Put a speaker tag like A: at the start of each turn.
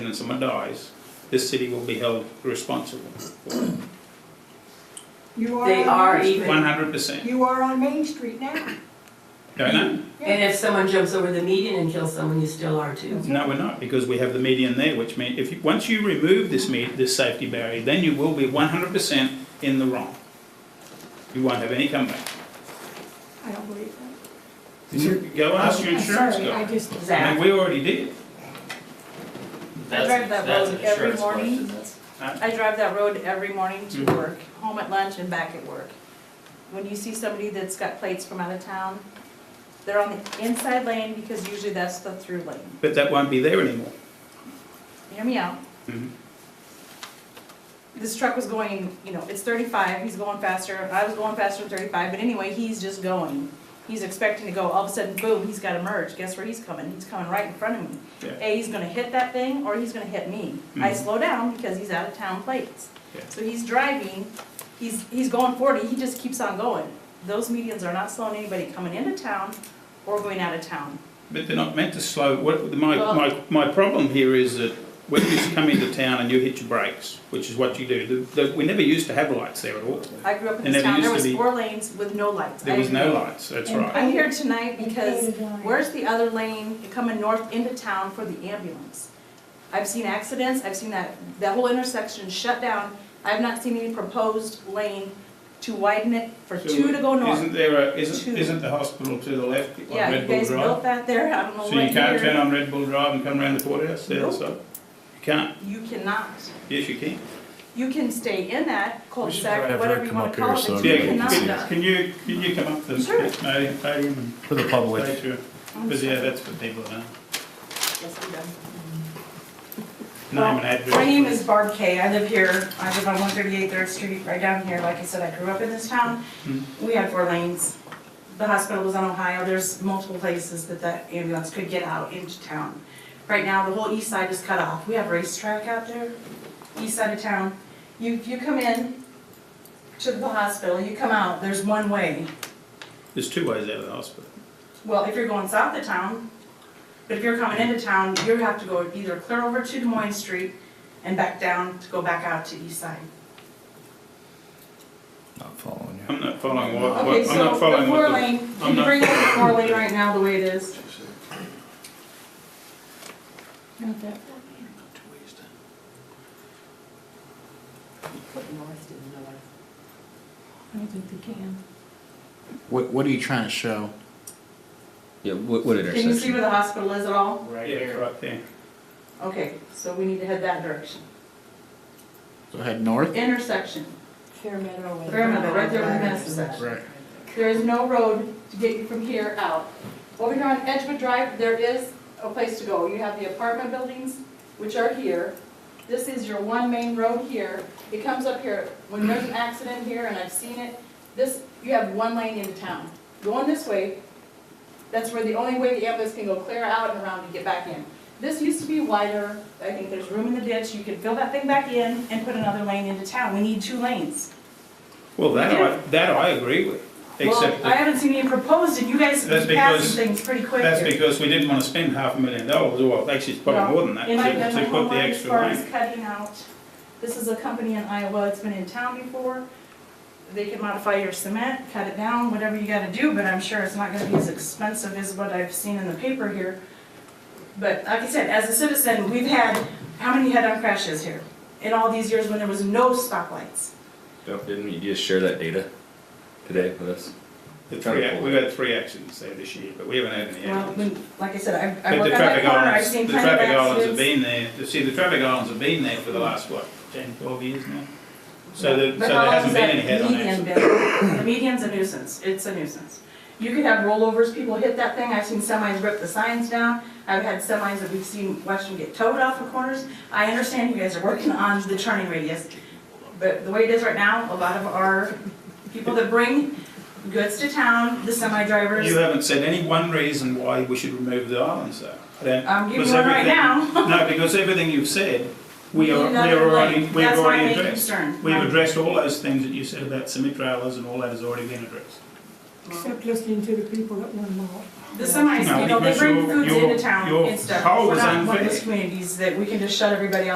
A: and someone dies, this city will be held responsible.
B: You are.
C: They
B: on
C: are
B: Main
C: even-
B: Street.
A: One hundred percent,
B: You are on Main Street now.
A: don't know?
C: And if someone jumps over the median and kills someone, you still are too.
A: No, we're not, because we have the median there, which means if, you- once you remove this me, this safety barrier, then you will be one hundred percent in the wrong. You won't have any comeback.
B: I don't believe that.
A: Go ask your
B: Oh, I'm
A: insurance
B: sorry, I
A: guy.
B: just,
A: And
C: Zach,
A: we already did.
D: That's-
E: drive that
D: that's
E: road
D: an
E: every
D: insurance
E: morning.
D: question, that's-
E: I drive that road every morning to
A: Mhm.
E: work, home at lunch and back at work. When you see somebody that's got plates from out of town, they're on the inside lane because usually that's the through lane.
A: But that won't be there anymore.
E: Hear me out.
A: Mhm.
E: This truck was going, you know, it's thirty-five, he's going faster, I was going faster than thirty-five, but anyway, he's just going. He's expecting to go, all of a sudden, boom, he's gotta merge, guess where he's coming? He's coming right in front of me.
A: Yeah.
E: A, he's gonna hit that thing, or he's gonna hit me. I
A: Mhm.
E: slow down because he's out of town plates.
A: Yeah.
E: So he's driving, he's, he's going forty, he just keeps on going. Those medians are not slowing anybody coming into town or going out of town.
A: But they're not meant to slow, what, my,
E: Well-
A: my, my problem here is that when you come into town and you hit your brakes, which is what you do, the, the, we never used to have lights there at all.
E: I grew up in
A: And there
E: this town, there
A: used
E: was
A: to be-
E: four lanes with no lights.
A: There
E: I
A: was no
E: agree.
A: lights, that's
B: And
A: right.
E: I'm here tonight
B: And
E: because
B: painted lines.
E: where's the other lane coming north into town for the ambulance? I've seen accidents, I've seen that, that whole intersection shut down. I've not seen any proposed lane to widen it for
A: So
E: two to go north.
A: Isn't there a, isn't,
E: Two.
A: isn't the hospital to the left, on
E: Yeah,
A: Red
E: you
A: Bull
E: guys built
A: Drive?
E: that there, I don't know
A: So
E: what
A: you can't turn
E: year.
A: on Red Bull Drive and come around the courthouse, the other
E: Nope.
A: side? You can't,
E: You cannot.
A: yes you can.
E: You can stay in that
F: try to
E: cul-de-sac,
F: have
E: whatever
F: her
E: you
F: come
E: wanna
F: up here
E: call it,
F: so
E: but you
A: Yeah,
F: everybody
A: can-
E: cannot.
A: can,
F: see
A: can you, can you come up to
E: Sure.
A: the podium- podium
F: For the
A: and
F: public.
A: say to her? Because yeah, that's what people know.
E: Yes, we do.
A: Name and address.
G: My name is Barb Kay, I live here, I live on one thirty-eight Third Street, right down here, like I said, I grew up in this town.
A: Hmm.
G: We had four lanes, the hospital was on Ohio, there's multiple places that that ambulance could get out into town. Right now, the whole east side is cut off, we have racetrack out there, east side of town. You, you come in to the hospital, you come out, there's one way,
A: There's two ways out of the hospital.
G: well, if you're going south of town, but if you're coming into town, you have to go either clear over to Des Moines Street and back down to go back out to east side.
F: Not following you.
A: I'm not following what,
G: Okay,
A: what, I'm
G: so
A: not
G: the
A: following
G: four
A: what
G: lane,
A: the. I'm
G: can you
A: not-
G: bring up the four lane right now the way it is?
B: not that. I don't think they can.
H: What, what are you trying to show?
I: Yeah, what, what
G: Can you see where the hospital is at all?
A: Yeah, it's right there.
G: Okay, so we need to head that direction.
H: Go ahead north?
G: Intersection,
B: Fair Meadow.
G: Fairmeadow, right there where the mess is at.
H: Right.
G: There is no road to get you from here out. Over here on Edgewood Drive, there is a place to go. You have the apartment buildings, which are here. This is your one main road here. It comes up here. When there's an accident here, and I've seen it, this, you have one lane into town. Going this way, that's where the only way the ambulance can go clear out and around to get back in.
E: This used to be wider, I think there's room in the ditch, you could fill that thing back in and put another lane into town. We need two lanes.
A: Well, that I, that I agree with, except
G: Well, I
A: that,
G: haven't seen any proposed, and you guys
A: That's
G: pass
A: because-
G: things pretty quick
A: that's
G: here.
A: because we didn't wanna spend half a million dollars, or actually it's probably more than that,
E: In my, in
A: to,
E: my
A: to put
E: homework,
A: the
E: as
A: extra
E: far as
A: lane.
E: cutting out, this is a company in Iowa, it's been in town before. They can modify your cement, cut it down, whatever you gotta do, but I'm sure it's not gonna be as expensive as what I've seen in the paper here.
G: But like I said, as a citizen, we've had, how many head-on crashes here? In all these years when there was no stoplights?
D: Don't- Didn't you just share that data today with us?
A: The three, ac- we've had three accidents there this year, but we haven't had any
G: Well,
A: accidents.
G: when, like I said, I, I
A: But the
G: work on that
A: traffic
G: corner, I've
A: islands,
G: seen
A: the
G: plenty of
A: traffic islands have
G: accidents.
A: been there, you see, the traffic islands have been there for the last, what, ten, twelve years now? So the, so
G: But
A: there
G: how long
A: hasn't been
G: has that
A: any head-on
G: median
A: accidents.
G: been? The median's a nuisance, it's a nuisance. You could have rollovers, people hit that thing, I've seen semis rip the signs down, I've had semis that we've seen, watched them get towed off the corners. I understand you guys are working on the turning radius, but the way it is right now, a lot of our people that bring goods to town, the semi drivers.
A: You haven't said any one reason why we should remove the islands though. I don't-
G: I'm giving
A: because
G: one right
A: everything-
G: now.
A: No, because everything you've said, we are, we
G: Another
A: are already,
G: lane.
A: we've
G: That's my
A: already
G: main
A: addressed.
G: concern.
A: We've
G: My-
A: addressed all those things that you said about semi trailers and all that has already been addressed.
B: Except listening to the people that want them all.
G: The semis,
A: No,
G: you know, they
A: because
G: bring
A: your-
G: foods
A: your-
G: into town
A: your
G: and stuff.
A: poll
G: We're
A: was
G: not one of
A: unfair.
G: those communities that we can just shut everybody